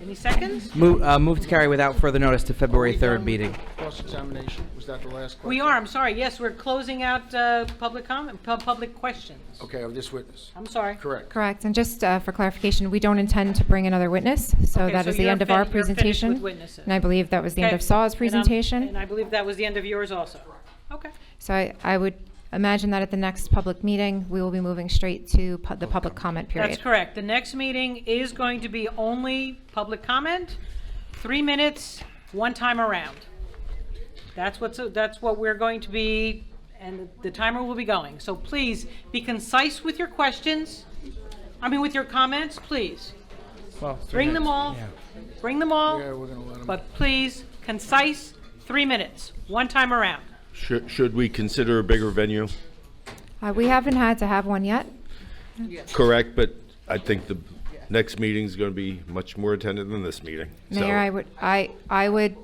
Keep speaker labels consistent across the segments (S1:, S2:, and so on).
S1: Any seconds?
S2: Move, uh, move to carry without further notice to February 3rd meeting.
S3: Cross-examination, was that the last question?
S1: We are, I'm sorry, yes, we're closing out uh, public comment, pub- public questions.
S3: Okay, of this witness,
S1: I'm sorry.
S3: correct.
S4: Correct, and just uh, for clarification, we don't intend to bring another witness, so
S1: Okay,
S4: that
S1: so
S4: is the
S1: you're
S4: end of our
S1: fin- you're finished
S4: presentation.
S1: with witnesses.
S4: And I believe that was the end
S1: Okay.
S4: of Saw's
S1: And I'm-
S4: presentation.
S1: And I believe that was the end of yours also. Okay.
S4: So I, I would imagine that at the next public meeting, we will be moving straight to pu- the public comment period.
S1: That's correct. The next meeting is going to be only public comment, three minutes, one time around. That's what's, that's what we're going to be, and the timer will be going. So please be concise with your questions, I mean, with your comments, please. Bring them all, bring them
S3: Yeah,
S1: all,
S3: we're gonna let him.
S1: but please, concise, three minutes, one time around.
S5: Should, should we consider a bigger venue?
S4: Uh, We haven't had to have one yet.
S5: Correct, but I think the next meeting's gonna be much more attended than this meeting. So,
S4: Mayor, I would, I, I would,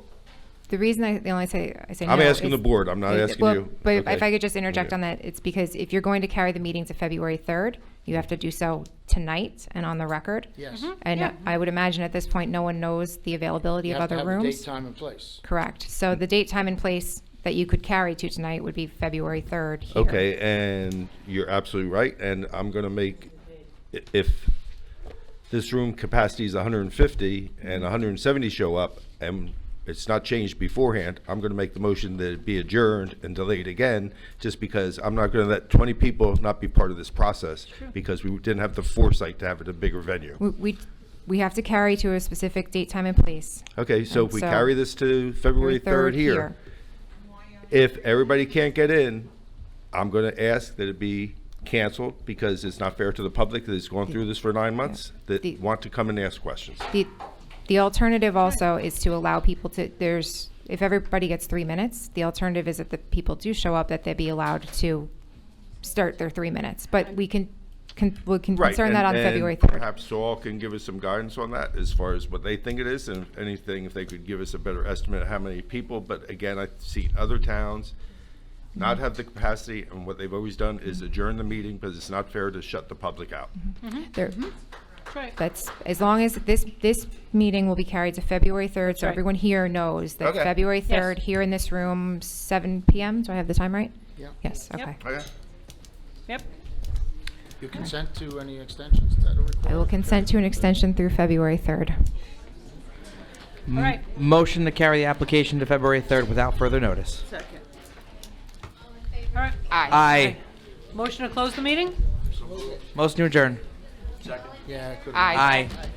S4: the reason I, the only say, I say no.
S5: I'm asking
S4: is-
S5: the board, I'm not
S4: It-
S5: asking
S4: well,
S5: you.
S4: But if- if
S5: Okay.
S4: I could just interject
S5: Okay.
S4: on that, it's because if you're going to carry the meeting to February 3rd, you have to do so tonight and on the record.
S3: Yes.
S5: Mm-hmm.
S4: And I would imagine at this point, no one knows the availability
S3: You
S4: of
S3: have to
S4: other
S3: have a date,
S4: rooms.
S3: time, and place.
S4: Correct. So
S5: Mm-hmm.
S4: the date, time, and place that you could carry to tonight would be February 3rd here.
S5: Okay, and you're absolutely right, and I'm gonna make, i- if this room capacity is hundred and fifty and hundred and seventy show up, and it's not changed beforehand, I'm gonna make the motion that it be adjourned and delayed again, just because I'm not gonna let twenty people not be part of this process, because we didn't have the foresight to have it a bigger venue.
S4: We- We, we have to carry to a specific date, time, and place.
S5: Okay, so if we
S4: So-
S5: carry this to February
S4: February
S5: 3rd here, if everybody can't get in, I'm going to ask that it be canceled because it's not fair to the public that has gone through this for nine months
S4: The-
S5: that want to come and ask questions.
S4: The, the alternative also is to allow people to, there's, if everybody gets three minutes, the alternative is that the people do show up, that they be allowed to start their three minutes. But we can, can, we can
S5: Right,
S4: concern
S5: and-
S4: that on
S5: and
S4: February 3rd.
S5: Perhaps Saul can give us some guidance on that as far as what they think it is and if anything, if they could give us a better estimate of how many people. But again, I see other towns not have the capacity and what they've always done is adjourn the meeting because it's not fair to shut the public out.
S4: Mm-hmm. There-
S1: right.
S4: That's, as long as this, this meeting will be carried to February 3rd, so
S1: right.
S4: everyone here knows that
S5: Okay.
S4: February 3rd, here in this room, 7 PM, do I have the time right?
S3: Yeah.
S4: Yes, okay.
S5: Okay?
S1: Yep.
S3: You consent to any extensions that are required?
S4: I will consent to an extension through February 3rd.
S1: All right.
S2: Motion to carry the application to February 3rd without further notice.
S1: Second. All right.
S2: Aye.
S1: Motion to close the meeting?
S2: Motion to adjourn.
S3: Yeah, I could've-
S2: Aye.